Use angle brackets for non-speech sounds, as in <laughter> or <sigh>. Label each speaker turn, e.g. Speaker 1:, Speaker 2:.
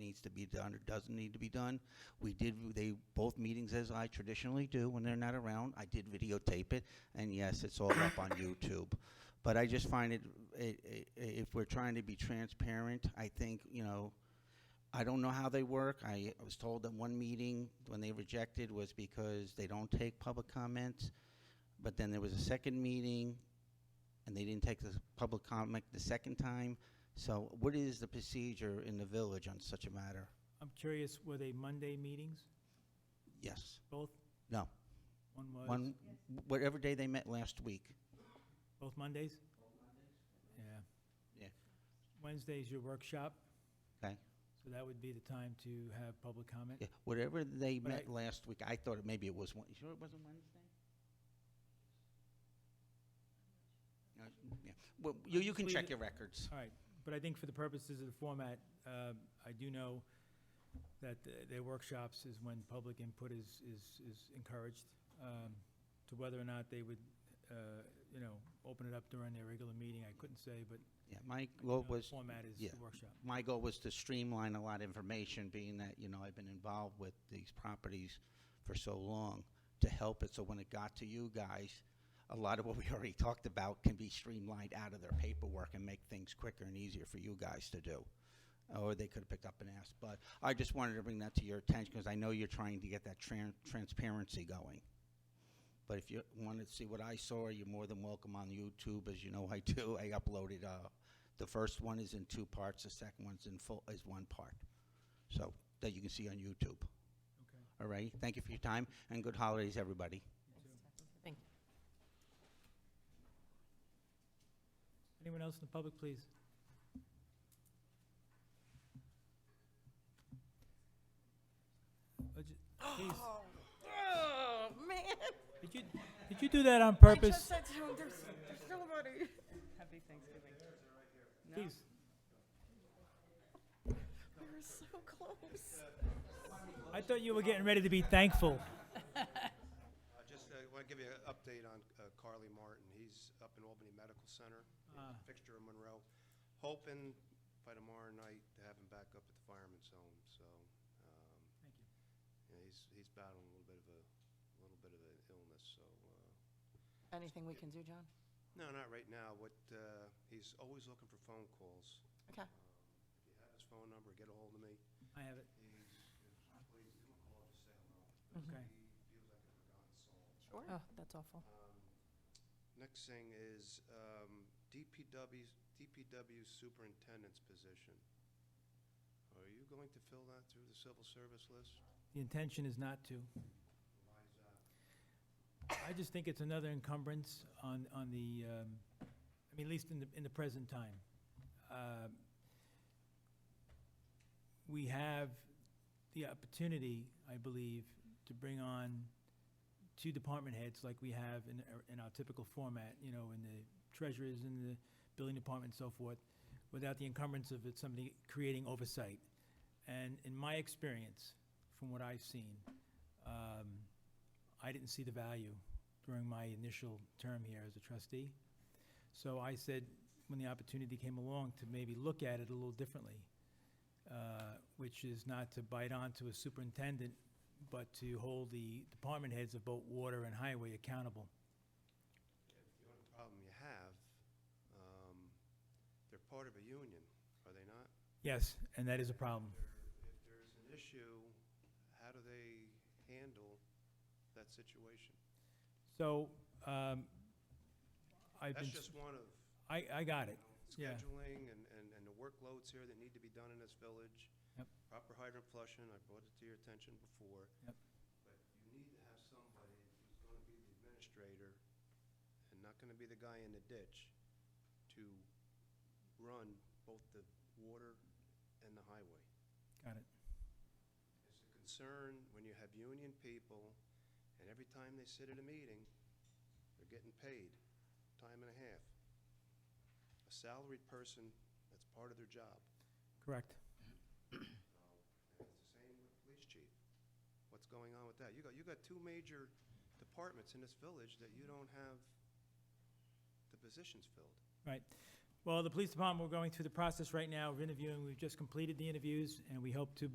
Speaker 1: needs to be done or doesn't need to be done. We did, they, both meetings, as I traditionally do when they're not around, I did videotape it, and yes, it's all up on YouTube. But I just find it, i- i- if we're trying to be transparent, I think, you know, I don't know how they work. I was told that one meeting, when they rejected, was because they don't take public comments. But then there was a second meeting, and they didn't take the public comment the second time. So what is the procedure in the village on such a matter?
Speaker 2: I'm curious, were they Monday meetings,
Speaker 1: Yes,
Speaker 2: both?
Speaker 1: no.
Speaker 2: One was,
Speaker 1: One, whatever day they met last week.
Speaker 2: both Mondays? Yeah.
Speaker 1: Yeah.
Speaker 2: Wednesday's your workshop,
Speaker 1: Okay?
Speaker 2: so that would be the time to have public comment.
Speaker 1: Yeah, Whatever they
Speaker 2: But
Speaker 1: met
Speaker 2: I-
Speaker 1: last week, I thought it- maybe it was, Wed- you sure it wasn't Wednesday? No, Uh, yeah. Well, you, you can
Speaker 2: Leave
Speaker 1: check
Speaker 2: it-
Speaker 1: your records.
Speaker 2: All right, but I think for the purposes of the format, um, I do know that th- their workshops is when public input is, is, is encouraged, um, to whether or not they would, uh, you know, open it up during their regular meeting, I couldn't say, but
Speaker 1: Yeah, my
Speaker 2: you
Speaker 1: goal
Speaker 2: know, the
Speaker 1: was,
Speaker 2: format is
Speaker 1: yeah.
Speaker 2: the workshop.
Speaker 1: my goal was to streamline a lot of information, being that, you know, I've been involved with these properties for so long, to help it, so when it got to you guys, a lot of what we <laughs> already talked about can be streamlined out of their paperwork and make things quicker and easier for you guys to do. Or they could have picked up and asked, but I just wanted to bring that to your attention, because I know you're trying to get that tran- transparency going. But if you wanted to see what I saw, you're more than welcome on YouTube, as you know I do. <laughs> I uploaded, uh, the first one is in two parts, the second one's in full, is one part. So, that you can see on YouTube.
Speaker 2: Okay.
Speaker 1: All right, thank you for your time, and good holidays, everybody.
Speaker 3: Thank you.
Speaker 2: Anyone else in the public, please? Uh, j- please,
Speaker 3: Oh, man.
Speaker 2: Did you, did you do that on purpose?
Speaker 3: said to him, there's, there's nobody. <laughs> Happy Thanksgiving. No,
Speaker 2: Please,
Speaker 3: We were so close.
Speaker 2: I thought you were getting ready to be thankful.
Speaker 4: I Uh, Just want to give you an update on uh, Carly Martin. He's up in Albany Medical Center,
Speaker 2: Ah.
Speaker 4: fixture of Monroe. Hoping by tomorrow night to have him back up at the fireman's home, so. um,
Speaker 2: Thank you.
Speaker 4: you know, He's, he's battling a little bit of a, a little bit of an illness, so. uh,
Speaker 3: Anything we can do, John?
Speaker 4: No, not right now. What, uh, he's always looking for phone calls. Um,
Speaker 3: Okay.
Speaker 4: If you have his phone number, get a hold of me.
Speaker 2: I have it,
Speaker 4: He's, he's- please give him a call, just say hello.
Speaker 2: okay.
Speaker 4: He feels like a forgotten soul.
Speaker 3: Sure. Oh, that's awful.
Speaker 4: Um, Next thing is um, DPW, 's- DPW superintendent's position. Are you going to fill that through the civil service list?
Speaker 2: The intention is not to.
Speaker 4: Why is that?
Speaker 2: I just think it's another encumbrance on, on the, um, I mean, at least in the, in the present time. Um, We have the opportunity, I believe, to bring on two department heads like we have in, our- in our typical format, you know, in the treasurers, in the building department and so forth, without the encumbrance of it, somebody creating oversight. And in my experience, from what I've seen, um, I didn't see the value during my initial term here as a trustee. So I said, when the opportunity came along, to maybe look at it a little differently, uh, which is not to bite onto a superintendent, but to hold the department heads of both water and highway accountable.
Speaker 4: The only problem you have, um, they're part of a union, are they not?
Speaker 2: Yes, and that is a problem.
Speaker 4: If there's an issue, how do they handle that situation?
Speaker 2: So um, I've been,
Speaker 4: That's just one of
Speaker 2: I, I got it. Yeah.
Speaker 4: scheduling and, and, and the workloads here that need to be done in this village.
Speaker 2: Yep.
Speaker 4: Proper hydrant flushing, I brought it to your attention before.
Speaker 2: Yep.
Speaker 4: But you need to have somebody who's gonna be the administrator and not gonna be the guy in the ditch to run both the water and the highway.
Speaker 2: Got it.
Speaker 4: It's a concern when you have union people and every time they sit at a meeting, they're getting paid time and a half. A salaried person, that's part of their job.
Speaker 2: Correct.
Speaker 4: And It's the same with police chief. What's going on with that? You got, you got two major departments in this village that you don't have the positions filled.
Speaker 2: Right. Well, the police department, we're going through the process right now of interviewing. We've just completed the interviews, and we hope to